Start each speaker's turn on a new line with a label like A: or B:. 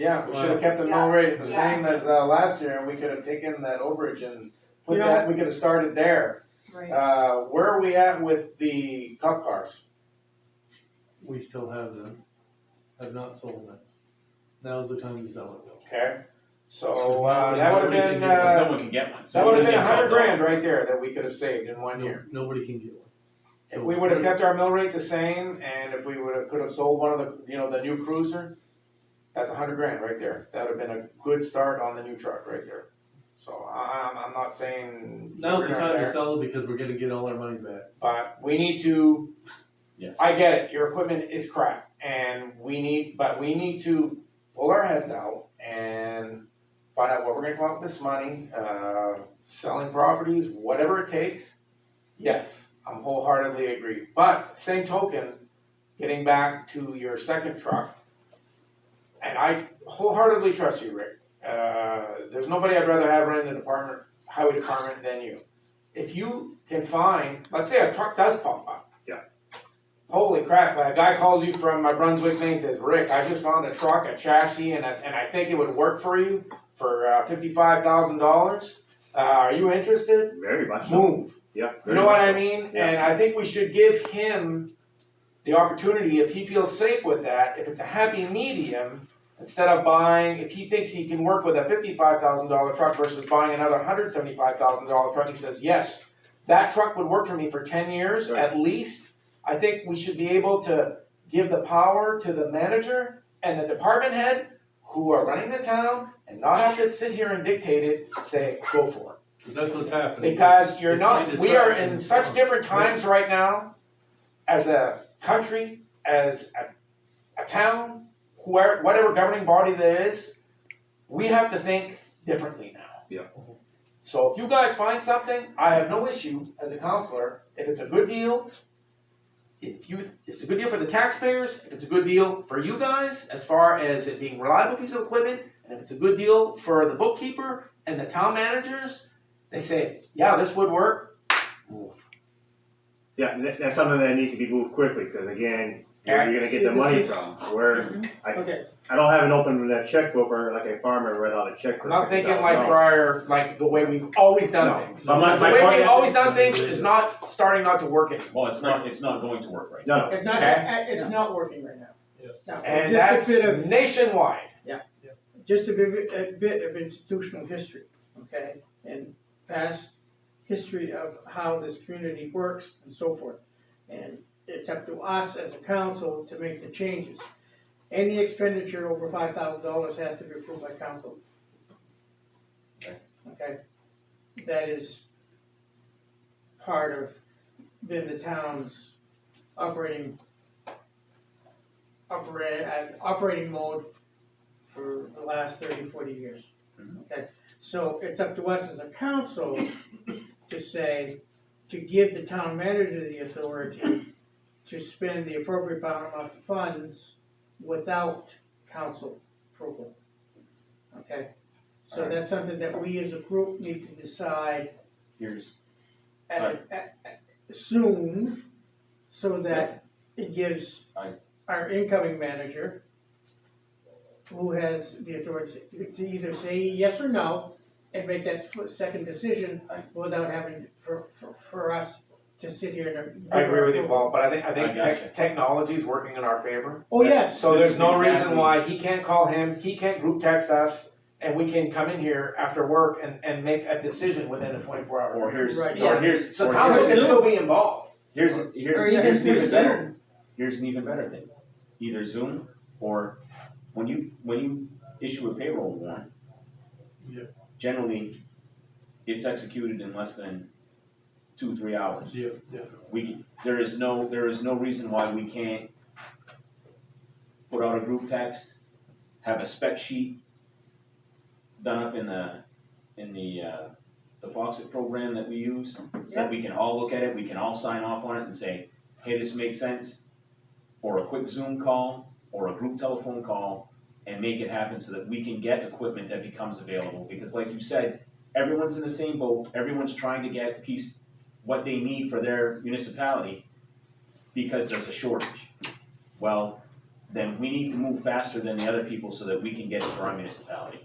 A: Yeah, we should have kept the mill rate the same as, uh, last year, and we could have taken that overage and put
B: You know
A: that, we could have started there.
C: Right.
A: Uh, where are we at with the cop cars?
B: We still have them, have not sold them. Now's the time to sell it.
A: Okay, so, uh, that would have been, uh,
D: Because no one can get one. so
A: that would have
D: we
A: been a
D: don't get
A: hundred
D: sold
A: grand right there that we could have saved in one
B: No-
A: year.
B: Nobody can get one.
A: If
B: So-
A: we would have kept our mill rate the same, and if we would have, could have sold one of the, you know, the new cruiser, that's a hundred grand right there. That would have been a good start on the new truck right there. So I, I'm, I'm not saying.
B: Now's the
A: we're not
B: time to
A: there,
B: sell it because we're gonna get all our money back.
A: But we need to
D: Yes.
A: I get it, your equipment is crap and we need, but we need to pull our heads out and find out what we're gonna come up with this money, uh, selling properties, whatever it takes. Yes, I'm wholeheartedly agree, but same token, getting back to your second truck. And I wholeheartedly trust you, Rick, uh, there's nobody I'd rather have running the department, highway department than you. If you can find, let's say a truck does pop up, holy crap, a guy calls you from my Brunswick thing and says, Rick, I just found a truck, a chassis, and, a, and I think it would work for you for uh, $55,000. Uh, are you interested?
E: Very much so.
A: Move.
E: Yeah.
A: You
E: very
A: know what
E: much
A: I
E: so.
A: mean?
E: Yeah.
A: And I think we should give him the opportunity, if he feels safe with that, if it's a happy medium, instead of buying, if he thinks he can work with a $55,000 truck versus buying another $175,000 truck, he says, yes, that truck would work for me for 10 years
E: Right.
A: at least. I think we should be able to give the power to the manager and the department head who are running the town and not have to sit here and dictate it, say, go for it.
B: Cause that's what's happening.
A: Because you're
B: It's
A: not,
B: needed
A: we are
B: time.
A: in such different times right now, as a country, as a, a town, where, whatever governing body that is, we have to think differently now.
E: Yeah.
A: So if you guys find something, I have no issue as a counselor, if it's a good deal, if you, if it's a good deal for the taxpayers, if it's a good deal for you guys, as far as it being reliable piece of equipment, and if it's a good deal for the bookkeeper and the town managers, they say, yeah, this would work.
E: Yeah, and that- that's something that needs to be moved quickly because again, where are you gonna get the
C: This
E: money
C: is-
E: from? Where
A: Mm-hmm. Okay.
E: I don't have an open uh, checkbook or like a farmer without a checkbook.
A: I'm not thinking like
E: No.
A: prior, like the way we've always
E: No.
A: done things.
E: But my-
A: The
E: my
A: way
E: point-
A: we've always done things is not starting not to work anymore.
D: Well, it's not, it's not going to work right now.
E: No, no.
C: It's not,
A: Okay.
C: it's not working right now.
B: Yeah.
C: No,
A: And
C: just
A: that's
C: a bit of,
A: nationwide.
C: just a bit, a bit of institutional history, okay? And past history of how this community works and so forth. And it's up to us as a council to make the changes. Any expenditure over five thousand dollars has to be approved by council.
D: Okay.
C: Okay? That is part of then the town's operating operate, uh, operating mode for the last 30, 40 years.
D: Mhm.
C: Okay, so it's up to us as a council to say, to give the town manager the authority to spend the appropriate amount of funds without council approval. Okay, so
D: Alright.
C: that's something that we as a group need to decide
D: Here's,
C: at, at, at- soon, so that it gives
D: Aye.
C: our incoming manager, who has the authority to either say yes or no, and make that split second decision
D: Aye.
C: without having, for, for, for us to sit here and.
A: I agree with you, Paul, but I think, I think
D: I gotcha.
A: tech, technology is working in our favor.
C: Oh, yes,
A: So
D: This
A: there's
D: is
A: no reason
D: exactly-
A: why he can't call him, he can't group text us, and we can come in here after work and, and make a decision within a twenty-four hour.
D: or here's,
C: Right,
D: or
A: yeah.
D: here's,
A: So
D: or
A: council can
D: here's,
A: still be involved.
D: here's,
C: Or
D: here's,
C: even
D: here's an even
C: just
D: better, here's an even better thing. Either Zoom or when you, when you issue a payroll warrant.
B: Yeah.
D: Generally, it's executed in less than two, three hours.
B: Yeah, yeah.
D: We, there is no, there is no reason why we can't put out a group text, have a spec sheet done up in the, in the, uh, the Foxit program that we use, so that we can all look at it, we can all sign off on it and say, hey, this makes sense, or a quick Zoom call, or a group telephone call, and make it happen so that we can get equipment that becomes available, because like you said, everyone's in the same boat, everyone's trying to get piece, what they need for their municipality because there's a shortage. Well, then we need to move faster than the other people so that we can get it for our municipality.